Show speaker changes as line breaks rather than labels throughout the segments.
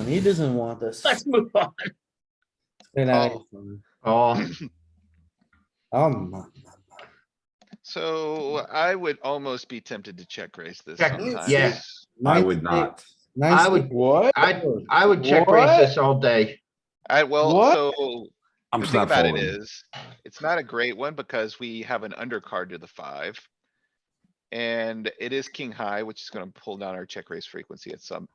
He doesn't want us.
Let's move on.
Oh,
Oh,
my.
So I would almost be tempted to check raise this
Check-
sometimes.
yeah.
I would not.
I would-
What?
I, I would check raise this all day.
I, well,
What?
so
I'm
the
just
thing
not
about it
folding.
is, it's not a great one because we have an undercard to the five. And it is king high, which is gonna pull down our check raise frequency at some.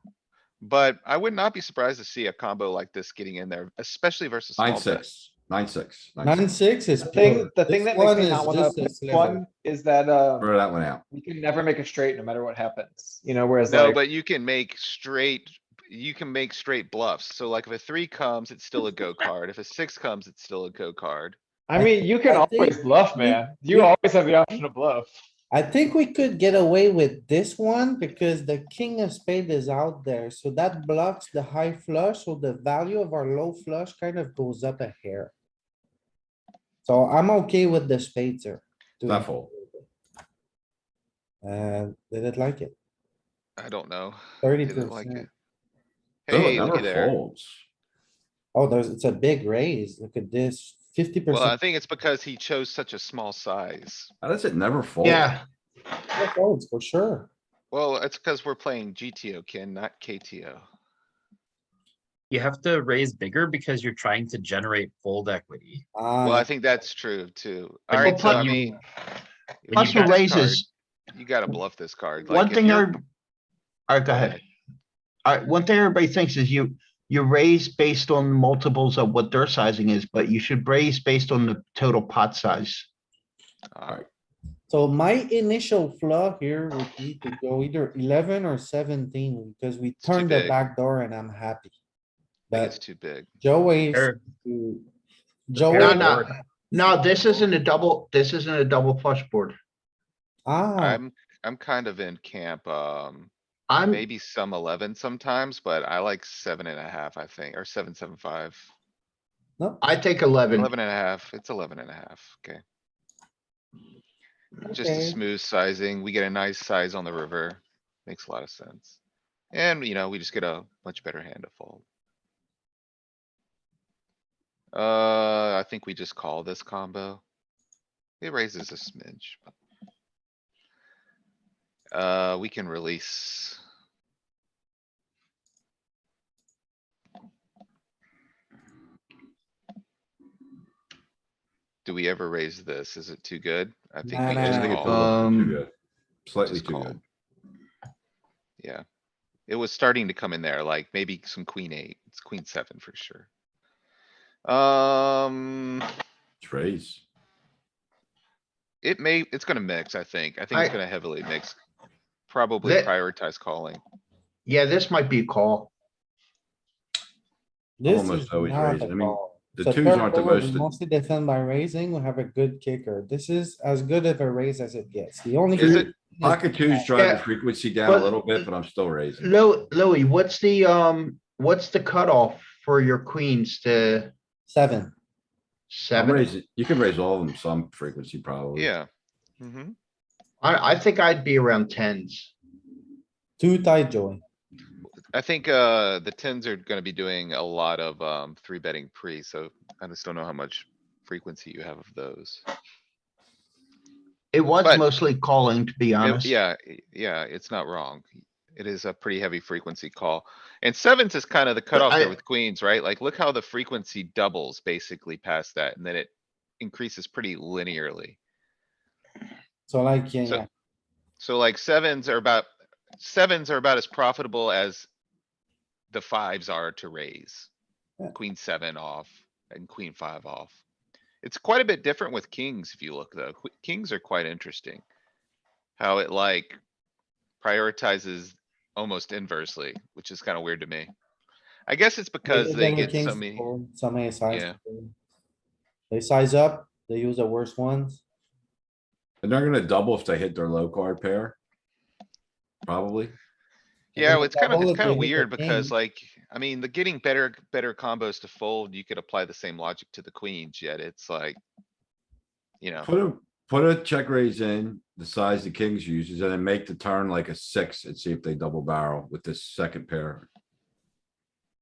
But I would not be surprised to see a combo like this getting in there, especially versus. small
Nine,
bet.
six, nine, six, nine,
Nine,
six.
six is.
The thing,
pure.
the thing
This
that makes
one
me
is
not wanna
just a
pick
sliver.
one is that, uh,
Throw that one out.
we can never make a straight no matter what happens, you know, whereas
No,
like,
but you can make straight, you can make straight bluffs. So like if a three comes, it's still a go card. If a six comes, it's still a go card.
I mean, you can
I think-
always bluff, man. You
Yeah.
always have the option to bluff.
I think we could get away with this one because the king of spade is out there, so that blocks the high flush, so the value of our low flush kind of goes up a hair. So I'm okay with the spades here. doing-
Not fold.
Uh, did it like it?
I don't know.
Thirty
Didn't like
percent.
it.
Those
Hey,
never
looky there.
folds.
Oh, there's, it's a big raise. Look at this, fifty
Well, I
percent.
think it's because he chose such a small size.
How does it never fold?
Yeah,
For sure.
Well, it's because we're playing GTO, Ken, not KTO.
You have to raise bigger because you're trying to generate fold equity.
Well, I
Uh,
think that's true too.
When you
Alright, so I
plug-
mean.
When
plus
you
the
got
raise-
raises.
You gotta bluff this card. like,
One
if
thing
you're-
every. Alright, go ahead. Alright, one thing everybody thinks is you, you raise based on multiples of what their sizing is, but you should raise based on the total pot size.
Alright,
so my initial flaw here would be to go either eleven or seventeen, because we
too
turned the
big.
back door and I'm happy.
I think it's
But
too big.
Joey,
Pair-
No,
Oh,
Very
Joey,
no,
boring.
no, this isn't a double, this isn't a double flush board.
ah,
I'm, I'm kind of in camp, um,
I'm,
maybe some eleven sometimes, but I like seven and a half, I think, or seven, seven, five.
no,
I take eleven.
Eleven and a half, it's eleven and a half, okay. Just a
Okay.
smooth sizing, we get a nice size on the river, makes a lot of sense. And, you know, we just get a much better hand to fold. Uh, I think we just call this combo. It raises a smidge. but- Uh, we can release. Do we ever raise this? Is it too good? I think
Nah,
we
nah,
I
nah.
just
think it's a
call.
little too
Um,
good. Slightly
just
too
call.
good.
Yeah. It was starting to come in there, like maybe some queen eight, it's queen seven for sure. Um,
It's raise.
it may, it's gonna mix, I think. I think it's
I-
gonna heavily mix. Probably
That-
prioritize calling.
Yeah, this might be a call.
this
almost
is
always
not
raise.
a
I mean,
call.
the
So
twos
third
aren't the
row, we
most-
Mostly defend by raising, we have a good kicker. This is as good of a raise as it gets. The only.
Is
good
it- Pocket twos drive the
Yeah.
frequency down a
But-
little bit, but I'm still raising.
Lou, Louis, what's the, um, what's the cutoff for your queens to
Seven.
I'm
seven?
raising, you can raise all of them some frequency probably.
Yeah. hmm
I, I think I'd be around tens.
Too tight, Joey.
I think, uh, the tens are gonna be doing a lot of, um, three betting pre, so I just don't know how much frequency you have of those.
It was
But-
mostly calling, to be
It-
honest.
Yeah, i- yeah, it's not wrong. It is a pretty heavy frequency call. And sevens is kind of the cutoff
I-
there with queens, right? Like, look how the frequency doubles basically past that, and then it increases pretty linearly.
So like, yeah,
So-
yeah,
So like sevens are about, sevens are about as profitable as the fives are to raise.
Yeah.
Queen seven off and queen five off. It's quite a bit different with kings if you look though. Qu- Kings are quite interesting. How it like prioritizes almost inversely, which is kinda weird to me. I guess it's because
Bigger
they
than the
get so
kings
many,
fold, Some ace size.
Yeah.
They size up, they use the worst ones.
And they're gonna double if they hit their low card pair. Probably.
And
yeah,
then
well, it's
they
kinda,
double
it's
if they hit
kinda
the
weird because
king.
like, I mean, the getting better, better combos to fold, you could apply the same logic to the queens, yet it's like. You know,
Put a, put a check raise in, the size the kings uses, and then make the turn like a six and see if they double barrel with this second pair.